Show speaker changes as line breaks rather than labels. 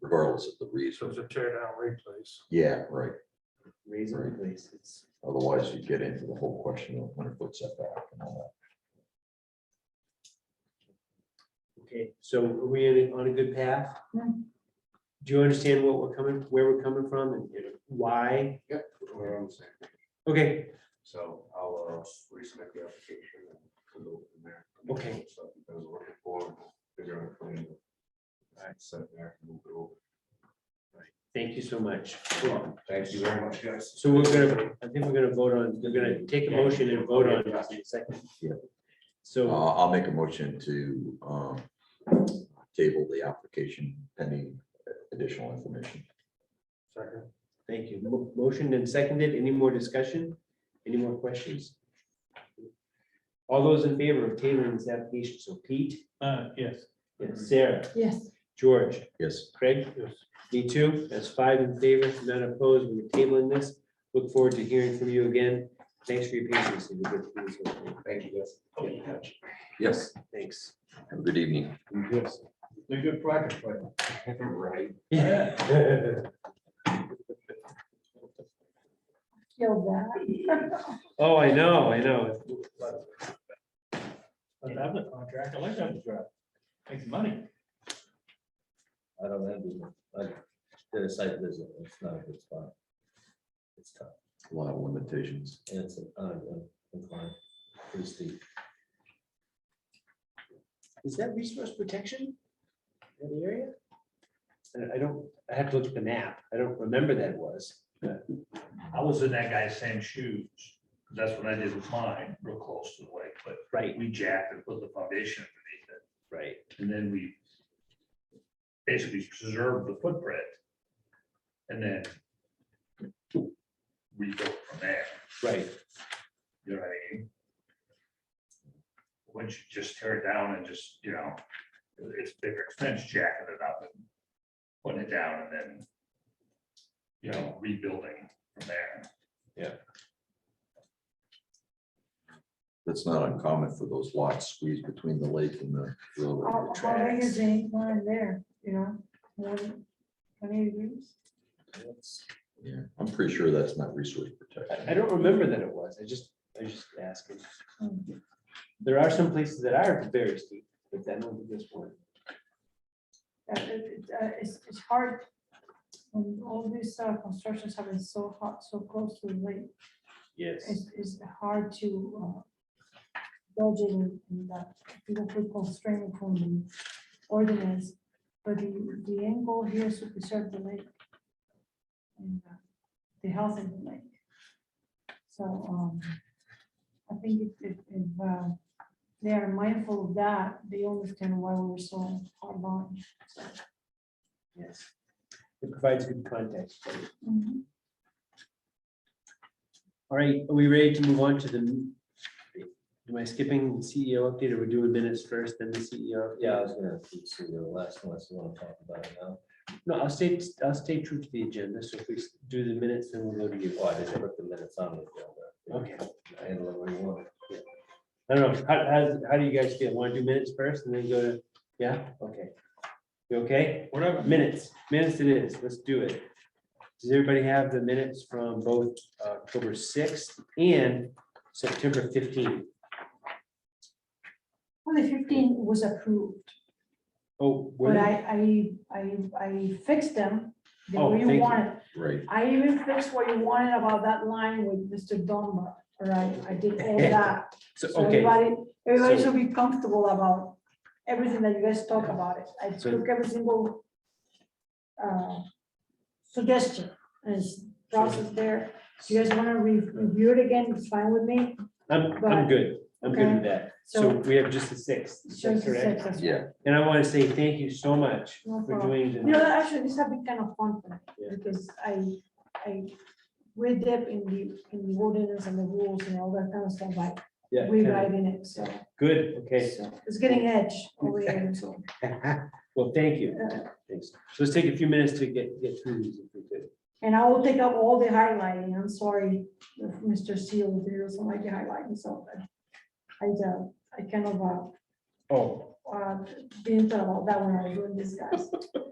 regardless of the
So
reason.
it's a tear down replace.
Yeah, right.
Reason, please, it's,
Otherwise, you get into the whole question of hundred foot setback and all
okay, so are we in a- on a good path?
Hmm.
Do you understand what we're coming, where we're coming from and you know, why?
Yep, we're on the same page.
Okay,
So I'll uh, resubmit the application and we'll go from there.
Okay.
So if you guys are looking for, figure out a plan. Alright, set there, move it over.
thank you so much.
Thank you very much, guys.
So we're gonna, I think we're gonna vote on, we're gonna take a motion and vote on it in a second.
Yeah. that.
So,
Uh, I'll make a motion to, um, table the application pending additional information.
Second,
thank you. Mo- Motioned and seconded. Any more discussion? Any more questions? All those in favor of tabling this application, so Pete,
uh, yes.
and
Mm-hmm.
Sarah,
Yes.
George,
Yes,
Craig?
Yes.
Me too. That's five in favor, none opposed. We're tabling this. Look forward to hearing from you again. Thanks for your patience. It was good to see you so quick.
Thank you, guys.
yes.
Thanks.
Have a good evening.
Yes. They're good practice, right? Right.
Killed that.
Oh, I know, I know.
But I'm the contract, I like that contract. Makes money.
I don't have, the- I did a site visit, it's not a good spot. It's tough,
A lot of limitations.
and it's, uh, uh, inclined, pretty steep.
Is that resource protection in the area? Uh, I- I don't, I have to look at the map. I don't remember that was.
I was in that guy's same shoes. 'cause That's what I did with mine, real close to the lake, but
Right,
we jacked and put the foundation underneath it.
right.
And then we basically preserved the footprint. And then rebuilt from there,
Right.
you know what I mean? Once you just tear it down and just, you know, it's bigger expense jacking it up and putting it down and then, you know, rebuilding from there.
That's not uncommon for those lots squeezed between the lake and the
How
railroad
how big
tracks.
is the line there, you know? More than Twenty degrees?
Yeah, I'm pretty sure that's not resource
I, I
protection.
don't remember that it was. I just, I just asking.
Hmm.
There are some places that are very steep, but that don't be this one.
Uh, it- it, uh, It's, it's hard. When all these uh, constructions have been so hot, so close to the lake,
Yes.
it's, it's hard to uh, dodge it and and that people put constraint from the ordinance. But the, the end goal here is to preserve the lake. And uh, the health of the lake. So um, I think if, if, if uh, they are mindful of that, they understand why we were so hard on.
Yes. It provides good context.
Mhm.
All right, are we ready to move on to the? Am I skipping the CEO update or we're doing minutes first, then the E CEO?
Yeah, I was gonna see the E last one, so I wanna talk about it now.
No, I'll stay, I'll stay true to the agenda. So if we do the minutes, then we'll go to you.
Well, Oh, I just put the minutes on the agenda.
Okay.
Handle it what you want.
I don't know, how, how, how do you guys feel? Want to do minutes first and then go to, yeah, okay. You okay? Whatever. Minutes, minutes it is, let's do it. Does everybody have the minutes from both uh, October sixth and September fifteenth?
Well, the fifteen was approved,
Oh, were
but
they-
I, I, I, I fixed them the
Oh,
way
thank
you
you.
wanted.
Right,
I even fixed what you wanted about that line with Mr. Dunbar, all right? I did all that.
so,
So
okay,
everybody, everybody
So-
should be comfortable about everything that you guys talk about it. I
So-
took every single uh, suggestion and process there. If you guys want to review it again, it's fine with me.
I'm, I'm
but-
good, I'm good with that. So
So-
we have just the sixth, is
It's
that
just a
correct?
success.
yeah,
And I want to say thank you so much
No
for
problem.
doing
You know,
the,
actually, this has been kind of fun for
Yeah.
me, because I, I read up in the, in the ordinance and the rules and all that kind of stuff, like
yeah, kinda-
rewriting it, so.
good, okay.
so It's getting edge over here, so.
Well, thank you,
Uh.
thanks. So let's take a few minutes to get, get through these if we could.
And I will take up all the highlighting, I'm sorry, if Mr. Seal doesn't like the highlighting, so I, I, uh, I kind of, uh,
Oh,
uh, didn't thought about that when I was doing this, guys.